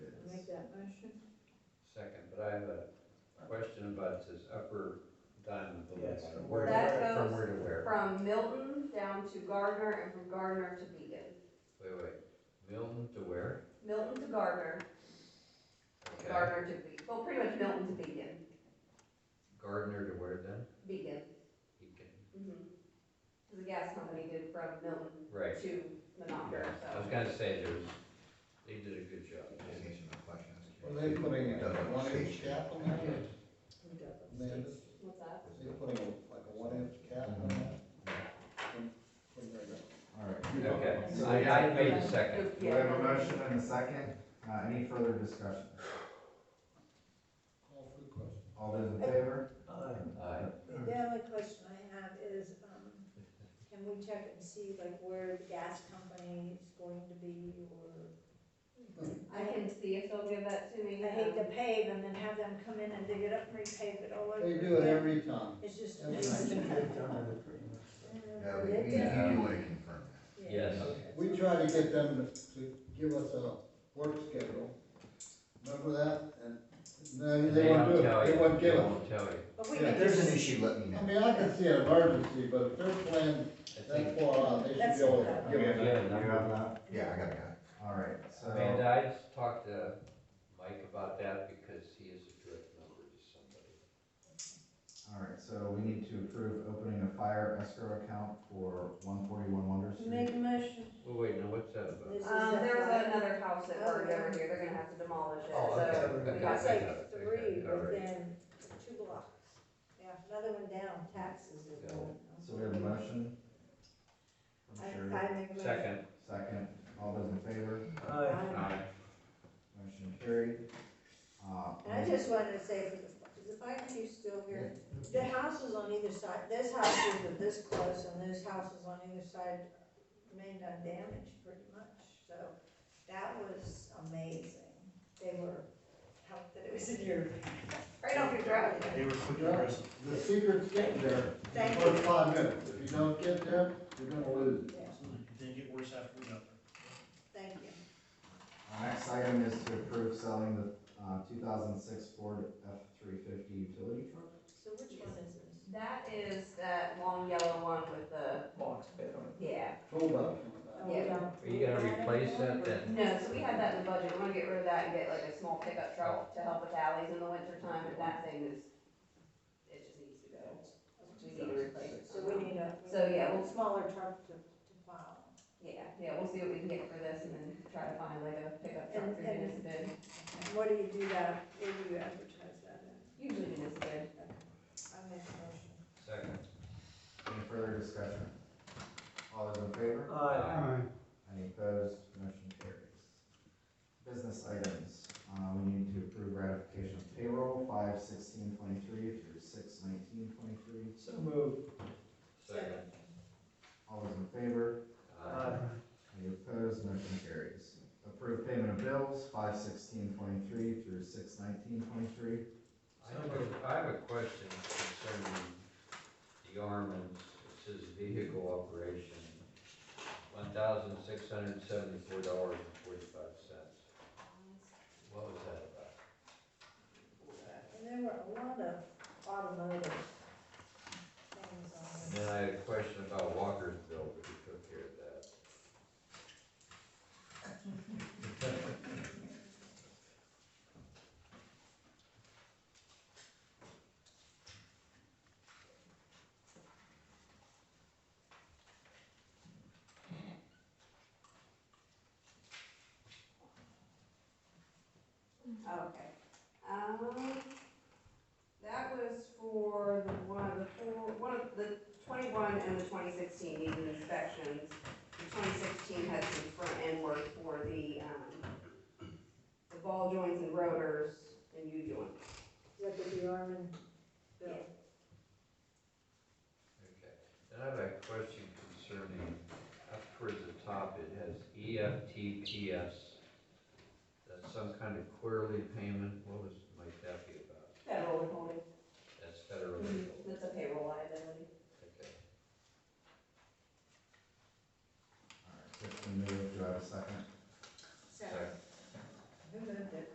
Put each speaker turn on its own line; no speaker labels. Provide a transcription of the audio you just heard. second, but I have a question about this upper diamond below.
Yes, from
Where-
That
From
goes-
where to where?
From Milton down to Gardner and from Gardner to Beacon.
Wait, wait, Milton to where?
Milton to Gardner,
Okay.
Gardner to Beacon, well, pretty much Milton to Beacon,
Gardner to where then?
Beacon.
Beacon.
Because the gas company did from Milton
Right,
to Monocacy,
I was
so.
gonna say there's, they did a good job.
Just answer my question, I was
Are
curious.
they putting a one inch
Station.
cap on that? Amanda,
What's that?
they putting a- like a one inch cap on that? When- when they're done?
All right.
Okay, I, I made a second.
We
Yeah.
have a motion and a second. Uh, any further discussion?
Call for the question.
All those in favor?
Aye.
The only question I have is, um, can we check and see like where the gas company is going to be or?
I can see if they'll give that to me. um,
I hate to pave and then have them come in and dig it up and repave it all over.
They do it
again.
every time.
It's just. a
every time.
Yeah, we, we,
Yeah.
you would confirm
uh, Yes.
We try to get them to- to give us a work schedule, remember that? And, no, they
They
won't do
don't
it,
tell you.
they won't give
They
it.
won't tell you.
But we
Yeah,
that. If
can
there's an
just,
issue, let me
I
know.
mean, I can see an emergency, but if they're planning
I think,
that far out, they should
That's
be able
not
Do
to give
we
it.
have that?
Yeah,
Do we have that?
Yeah, I got a guy.
All right,
Amanda,
so,
I just talked to Mike about that because he is a direct number to somebody.
all right, so we need to approve opening a fire escrow account for one forty-one Wonder
make
Street.
a motion.
Well, wait, now what's that about?
This is
Um, there was
a- Oh,
another house that burned over here, they're gonna have to demolish it,
Oh, okay,
so. we
okay,
got
It's
okay,
that.
okay,
like three
all right.
within two blocks. Yeah, another one down, taxes is
Yeah.
going up.
So we have a motion.
I,
I'm sure.
I make a motion.
Second,
Second, all those in favor?
Aye.
aye.
Motion carried. Uh,
And I just wanted to say, for the- is the fire chief still here? The houses on either side, this house is with this close and this house is on either side remained undamaged pretty much. So that was amazing. They were helped that it was in your, right off your driveway.
The secret's getting there in the
Thank you.
first five minutes, if you don't get there, you're gonna lose it.
Yeah,
Didn't get worse after we got there.
Thank you.
Our next item is to approve selling the, uh, two thousand six Ford F three fifty utility truck.
So which one is this?
That is that long yellow one with the.
box bed on it.
Yeah.
Hold up.
Oh, we
Yeah.
don't-
Are you gonna
we don't have
replace
one?
that then?
No, so we had that in the budget, we're gonna get rid of that and get like a small pickup truck to help with alleys in the winter time, but that thing is, it just needs to go. We need to replace it.
So we need a.
So, yeah, we'll-
Smaller truck to, to plow.
Yeah, yeah, we'll see what we can get for this and then try to find like a pickup truck
And-
for
and-
municipal.
And What do you do that, where do you advertise that in?
Usually municipal.
I make a motion.
Second,
Any further discussion? All those in favor?
Uh. aye.
Any opposed? Motion carries. Business items, uh, we need to approve ratification of payroll, five sixteen twenty-three through six nineteen twenty-three.
So moved.
Second,
All those in favor?
aye.
Any opposed? Motion carries. Approve payment of bills, five sixteen twenty-three through six nineteen twenty-three.
I have a- I have a question concerning the Armands, it says vehicle operation, one thousand six hundred and seventy-four dollars and forty-five cents. What was that about?
And there were a lot of automotive things on
And
this.
then I had a question about Walker's bill, but you took care of that.
Okay. Um, that was for the one of the four, one of the twenty-one and the twenty sixteen needed inspections. The twenty sixteen had some front end work for the, um, the ball joints and rotors and U joints.
What did the Armin bill?
Okay, then I have a question concerning, up towards the top, it has E EFTPS. That's some kind of quarterly payment, what was, might that be about?
Federal withholding.
That's federal legal.